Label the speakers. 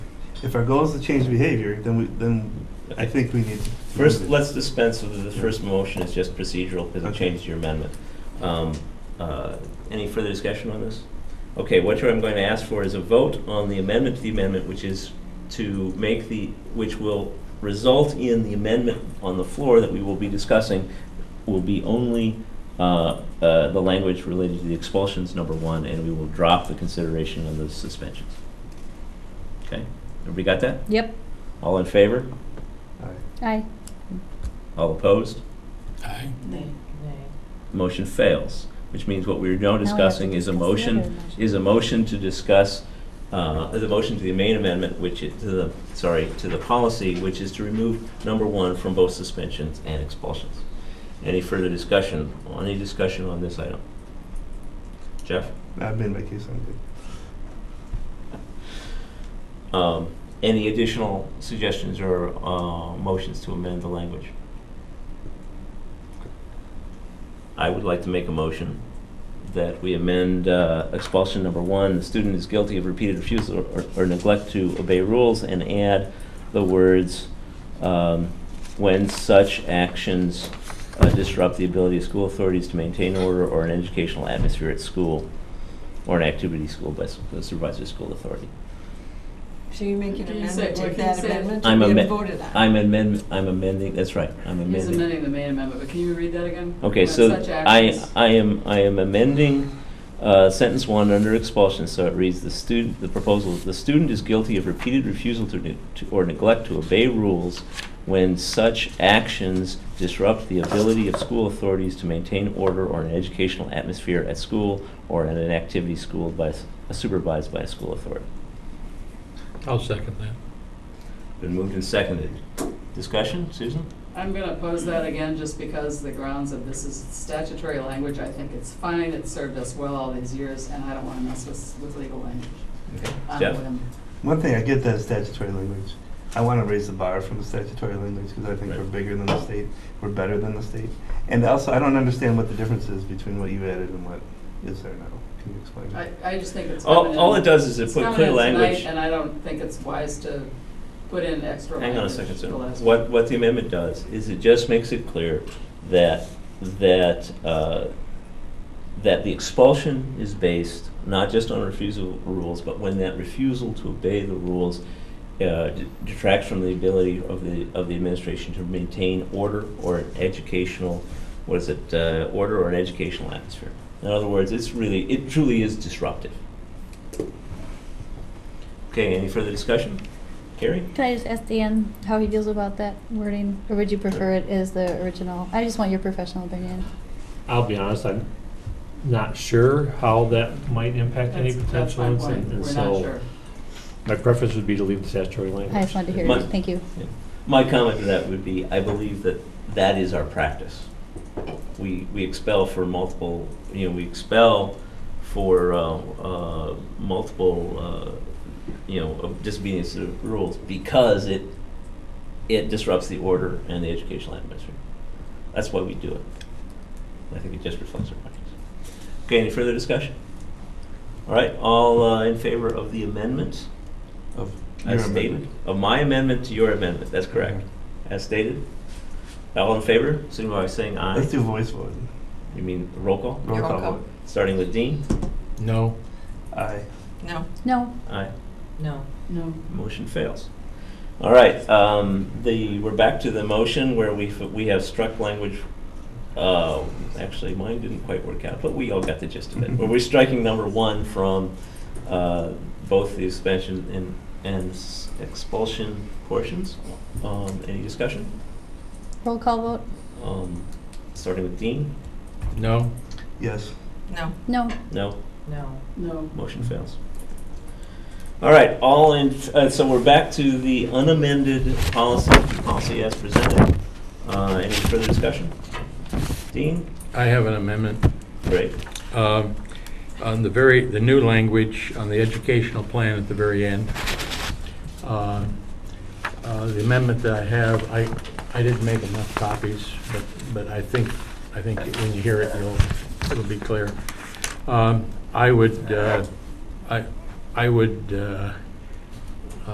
Speaker 1: If our goal is to change behavior, then we, then I think we need. to
Speaker 2: First,
Speaker 1: move it.
Speaker 2: let's dispense with the first motion, it's just procedural because it
Speaker 1: Okay.
Speaker 2: changes your amendment. Um, uh, Any further discussion on this? Okay, what I'm going to ask for is a vote on the amendment to the amendment, which is to make the, which will result in the amendment on the floor that we will be discussing will be only uh, uh, the language related to the expulsions, number one, and we will drop the consideration of the suspensions. Okay, everybody got that?
Speaker 3: Yep,
Speaker 2: All in favor?
Speaker 1: All right.
Speaker 3: aye.
Speaker 2: All opposed?
Speaker 4: Aye.
Speaker 5: Nay.
Speaker 2: motion fails, which means what we're now
Speaker 3: Now we have to
Speaker 2: discussing is a
Speaker 3: discuss the
Speaker 2: motion,
Speaker 3: other motion.
Speaker 2: is a motion to discuss, uh, the motion to the main amendment, which is, to the, sorry, to the policy, which is to remove number one from both suspensions and expulsions. Any further discussion, any discussion on this item? Jeff?
Speaker 1: I've been my case on good.
Speaker 2: Um, Any additional suggestions or uh, motions to amend the language? I would like to make a motion that we amend uh, expulsion number one, the student is guilty of repeated refusal or- or neglect to obey rules, and add the words, um, when such actions uh, disrupt the ability of school authorities to maintain order or an educational atmosphere at school, or an activity school by s- supervised by school authority.
Speaker 5: So you make an
Speaker 6: Can you say-
Speaker 5: amendment
Speaker 6: what
Speaker 5: to
Speaker 6: can you
Speaker 5: that
Speaker 6: say?
Speaker 5: amendment
Speaker 2: I'm
Speaker 5: to be
Speaker 2: amen-
Speaker 5: voted on?
Speaker 2: I'm amend, I'm amending, that's right, I'm
Speaker 6: He's
Speaker 2: amending.
Speaker 6: amending the main amendment, but can you read that again?
Speaker 2: Okay,
Speaker 6: When
Speaker 2: so
Speaker 6: such
Speaker 2: I,
Speaker 6: actions-
Speaker 2: I am, I am amending, uh, sentence one under expulsion, so it reads, the student, the proposal, the student is guilty of repeated refusal to, ne- to- or neglect to obey rules when such actions disrupt the ability of school authorities to maintain order or an educational atmosphere at school or in an activity school by, s- supervised by a school authority.
Speaker 4: I'll second that.
Speaker 2: Been moved and seconded. Discussion, Susan?
Speaker 6: I'm gonna oppose that again, just because the grounds of this is statutory language, I think it's fine, it served us well all these years, and I don't wanna mess with, with legal language. on
Speaker 2: Jeff?
Speaker 6: what I'm-
Speaker 1: One thing I get that is statutory language. I want to raise the bar from the statutory language because I think
Speaker 2: Right.
Speaker 1: we're bigger than the state, we're better than the state. And also, I don't understand what the difference is between what you added and what is there now. Can you explain
Speaker 6: I,
Speaker 1: that?
Speaker 6: I just think it's coming
Speaker 2: All,
Speaker 6: in.
Speaker 2: all it does is it
Speaker 6: it's
Speaker 2: put
Speaker 6: coming
Speaker 2: clear
Speaker 6: in tonight,
Speaker 2: language.
Speaker 6: And I don't think it's wise to put in extra
Speaker 2: Hang
Speaker 6: language.
Speaker 2: on a second, sir.
Speaker 6: the last-
Speaker 2: What, what the amendment does is it just makes it clear that, that, uh, that the expulsion is based not just on refusal rules, but when that refusal to obey the rules uh, d- detracts from the ability of the, of the administration to maintain order or an educational, what is it, uh, order or an educational atmosphere. In other words, it's really, it truly is disruptive. Okay, any further discussion? Carrie?
Speaker 3: Can I just ask Dan how he feels about that wording, or would you prefer it as the original? I just want your professional opinion.
Speaker 7: I'll be honest, I'm not sure how that might impact any
Speaker 6: That's- that's
Speaker 7: potential
Speaker 6: my point.
Speaker 7: incident, and
Speaker 6: We're not
Speaker 7: so
Speaker 6: sure.
Speaker 7: my preference would be to leave the statutory language.
Speaker 3: I just wanted to hear
Speaker 2: Mine-
Speaker 3: it, thank you.
Speaker 2: My comment to that would be, I believe that that is our practice. We, we expel for multiple, you know, we expel for uh, uh, multiple, uh, you know, of disobedience to the rules because it, it disrupts the order and the educational atmosphere. That's why we do it. I think it just reflects our practice. Okay, any further discussion? All right, all uh, in favor of the amendment?
Speaker 1: Of your
Speaker 2: As stated,
Speaker 1: amendment.
Speaker 2: of my amendment to your amendment, that's correct. As stated, all in favor, signify by saying
Speaker 1: Let's
Speaker 2: aye.
Speaker 1: do voice vote.
Speaker 2: You mean roll call,
Speaker 1: Roll
Speaker 5: Roll
Speaker 1: call
Speaker 5: call.
Speaker 1: vote.
Speaker 2: starting with Dean?
Speaker 4: No.
Speaker 1: Aye.
Speaker 5: No.
Speaker 3: No,
Speaker 2: Aye.
Speaker 5: No.
Speaker 6: No.
Speaker 2: Motion fails. All right, um, the, we're back to the motion where we, we have struck language, uh, actually, mine didn't quite work out, but we all got the gist of it. Where we're striking number one from, uh, both the suspension and, and s- expulsion portions. Um, any discussion?
Speaker 3: roll call vote?
Speaker 2: Um, starting with Dean?
Speaker 4: No.
Speaker 1: Yes.
Speaker 5: No.
Speaker 3: No,
Speaker 2: No?
Speaker 5: No.
Speaker 6: No.
Speaker 2: Motion fails. All right, all in, uh, so we're back to the unamended policy, policy as presented. Uh, any further discussion? Dean?
Speaker 4: I have an amendment.
Speaker 2: Great.
Speaker 4: Um, On the very, the new language on the educational plan at the very end, uh, uh, the amendment that I have, I, I didn't make enough copies, but, but I think, I think when you hear it, you'll, it'll be clear. Um, I would, uh, I, I would uh,